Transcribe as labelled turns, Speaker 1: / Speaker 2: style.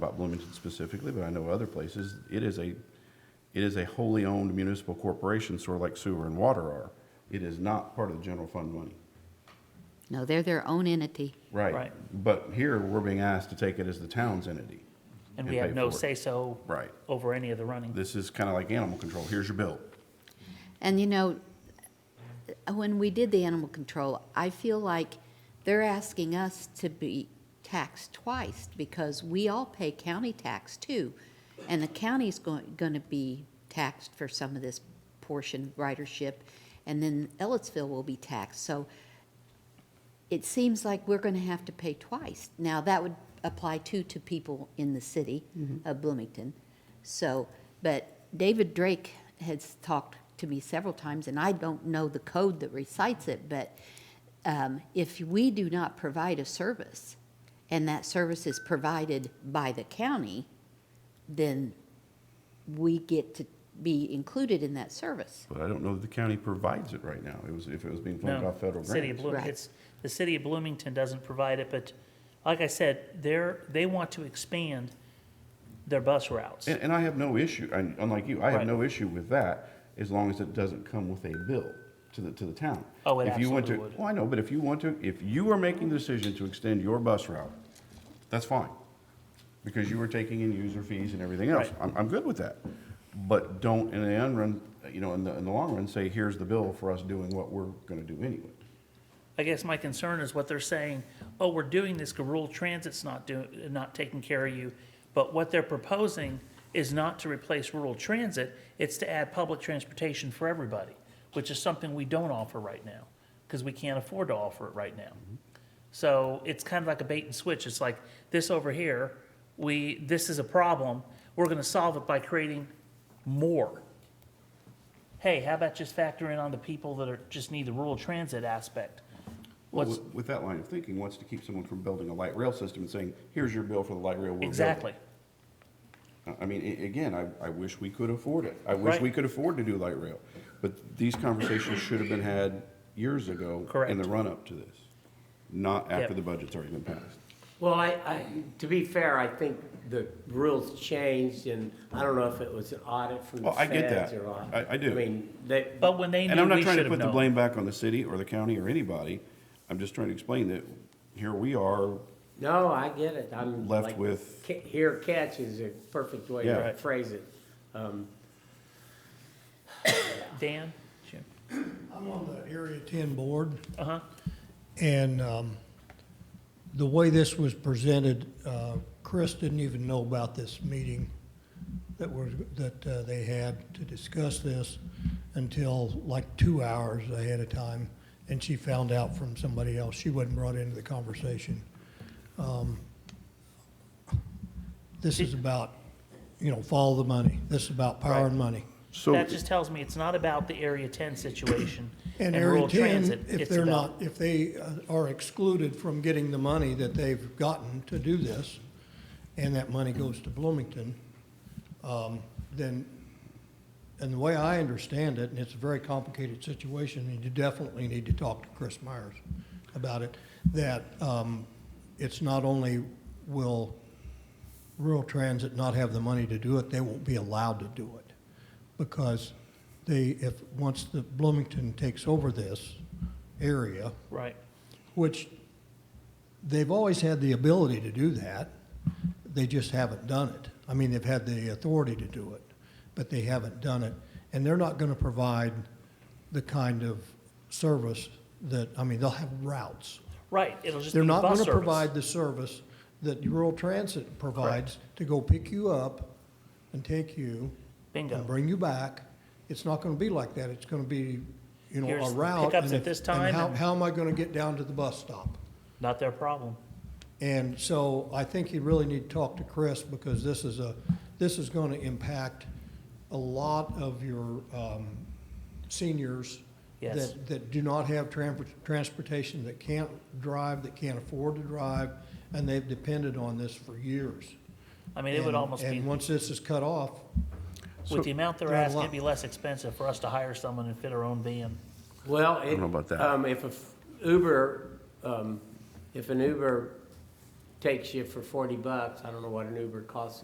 Speaker 1: about Bloomington specifically, but I know other places, it is a, it is a wholly owned municipal corporation, sort of like sewer and water are. It is not part of the general fund money.
Speaker 2: No, they're their own entity.
Speaker 1: Right.
Speaker 3: Right.
Speaker 1: But here, we're being asked to take it as the town's entity.
Speaker 3: And we
Speaker 1: and
Speaker 3: have
Speaker 1: pay
Speaker 3: no
Speaker 1: for it.
Speaker 3: say-so
Speaker 1: Right.
Speaker 3: over any of the running.
Speaker 1: This is kind of like animal control. Here's your bill.
Speaker 2: And you know, when we did the animal control, I feel like they're asking us to be taxed twice because we all pay county tax too. And the county's going, going to be taxed for some of this portion ridership. And then Ellisville will be taxed. So it seems like we're going to have to pay twice. Now, that would apply too to people in the city of Bloomington. So, but David Drake has talked to me several times, and I don't know the code that recites it, but um, if we do not provide a service, and that service is provided by the county, then we get to be included in that service.
Speaker 1: But I don't know that the county provides it right now. It was, if it was being funded
Speaker 3: No,
Speaker 1: off federal
Speaker 3: City of
Speaker 1: grants.
Speaker 3: Bloomington,
Speaker 2: Right.
Speaker 3: it's, the city of Bloomington doesn't provide it, but like I said, they're, they want to expand their bus routes.
Speaker 1: And, and I have no issue, and unlike you, I have
Speaker 3: Right.
Speaker 1: no issue with that as long as it doesn't come with a bill to the, to the town.
Speaker 3: Oh, it
Speaker 1: If you want
Speaker 3: absolutely
Speaker 1: to-
Speaker 3: would.
Speaker 1: Well, I know, but if you want to, if you are making the decision to extend your bus route, that's fine. Because you are taking in user fees and everything else.
Speaker 3: Right.
Speaker 1: I'm, I'm good with that. But don't, in the end run, you know, in the, in the long run, say, here's the bill for us doing what we're gonna do anyway.
Speaker 3: I guess my concern is what they're saying, oh, we're doing this, 'cause rural transit's not doing, not taking care of you. But what they're proposing is not to replace rural transit, it's to add public transportation for everybody, which is something we don't offer right now, because we can't afford to offer it right now. So it's kind of like a bait and switch. It's like, this over here, we, this is a problem, we're gonna solve it by creating more hey, how about just factor in on the people that are, just need the rural transit aspect?
Speaker 1: Well,
Speaker 3: What's,
Speaker 1: with- With that line of thinking, what's to keep someone from building a light rail system and saying, here's your bill for the light rail we're building?
Speaker 3: exactly,
Speaker 1: I- I mean, a- again, I, I wish we could afford it. I wish
Speaker 3: Right.
Speaker 1: we could afford to do light rail. But these conversations should have been had years ago. In
Speaker 3: Correct.
Speaker 1: the run-up to this, not after
Speaker 3: Yep.
Speaker 1: the budget's already been passed.
Speaker 4: Well, I, I, to be fair, I think the rules changed, and I don't know if it was an audit from the
Speaker 1: Well, Oh, I get
Speaker 4: feds
Speaker 1: that.
Speaker 4: or not.
Speaker 1: I- I do.
Speaker 4: I mean, they,
Speaker 3: but when they
Speaker 1: And
Speaker 3: knew,
Speaker 1: I'm not
Speaker 3: we
Speaker 1: trying
Speaker 3: should
Speaker 1: to
Speaker 3: have
Speaker 1: put the
Speaker 3: known.
Speaker 1: blame back on the city or the county or anybody. I'm just trying to explain that here we are,
Speaker 4: no, I get it, I'm.
Speaker 1: Left
Speaker 4: like,
Speaker 1: with-
Speaker 4: ca- Here catch is a perfect way
Speaker 1: Yeah.
Speaker 4: to
Speaker 1: Right.
Speaker 4: phrase it. Um,
Speaker 3: Dan? Jim?
Speaker 5: I'm on the Area 10 board,
Speaker 3: Uh-huh,
Speaker 5: and um, the way this was presented, uh, Chris didn't even know about this meeting that was, that uh, they had to discuss this until like two hours ahead of time, and she found out from somebody else. She wasn't brought into the conversation. Um, This is about, you know, follow the money. This is about power and money.
Speaker 1: so.
Speaker 3: that just tells me it's not about the Area ten situation and
Speaker 5: And Area
Speaker 3: rural
Speaker 5: 10,
Speaker 3: transit.
Speaker 5: if
Speaker 3: It's
Speaker 5: they're
Speaker 3: about-
Speaker 5: not, if they uh, are excluded from getting the money that they've gotten to do this, and that money goes to Bloomington, um, then, and the way I understand it, and it's a very complicated situation, and you definitely need to talk to Chris Myers about it, that um, it's not only will rural transit not have the money to do it, they won't be allowed to do it. Because they, if, once the Bloomington takes over this area,
Speaker 3: Right,
Speaker 5: which they've always had the ability to do that, they just haven't done it. I mean, they've had the authority to do it, but they haven't done it. And they're not gonna provide the kind of service that, I mean, they'll have routes.
Speaker 3: right, it'll just be
Speaker 5: They're not
Speaker 3: bus
Speaker 5: gonna
Speaker 3: service.
Speaker 5: provide the service that rural transit provides to go pick you up and take you.
Speaker 3: Bingo.
Speaker 5: And bring you back. It's not gonna be like that. It's gonna be, you know,
Speaker 3: Here's
Speaker 5: a
Speaker 3: the
Speaker 5: route.
Speaker 3: pickups
Speaker 5: and
Speaker 3: at
Speaker 5: if-
Speaker 3: this
Speaker 5: and
Speaker 3: time
Speaker 5: how,
Speaker 3: and-
Speaker 5: how am I gonna get down to the bus stop?
Speaker 3: Not their problem.
Speaker 5: And so I think you really need to talk to Chris because this is a, this is going to impact a lot of your um, seniors
Speaker 3: Yes.
Speaker 5: that, that do not have tran- transportation, that can't drive, that can't afford to drive, and they've depended on this for years.
Speaker 3: I mean, it would
Speaker 5: And-
Speaker 3: almost be,
Speaker 5: And once this is cut off,
Speaker 3: with the amount they're
Speaker 5: They're
Speaker 3: asking,
Speaker 5: lo-
Speaker 3: it'd be less expensive for us to hire someone and fit our own van.
Speaker 4: Well, it.
Speaker 1: know about that.
Speaker 4: Um, if a f- Uber, um, if an Uber takes you for forty bucks, I don't know what an Uber costs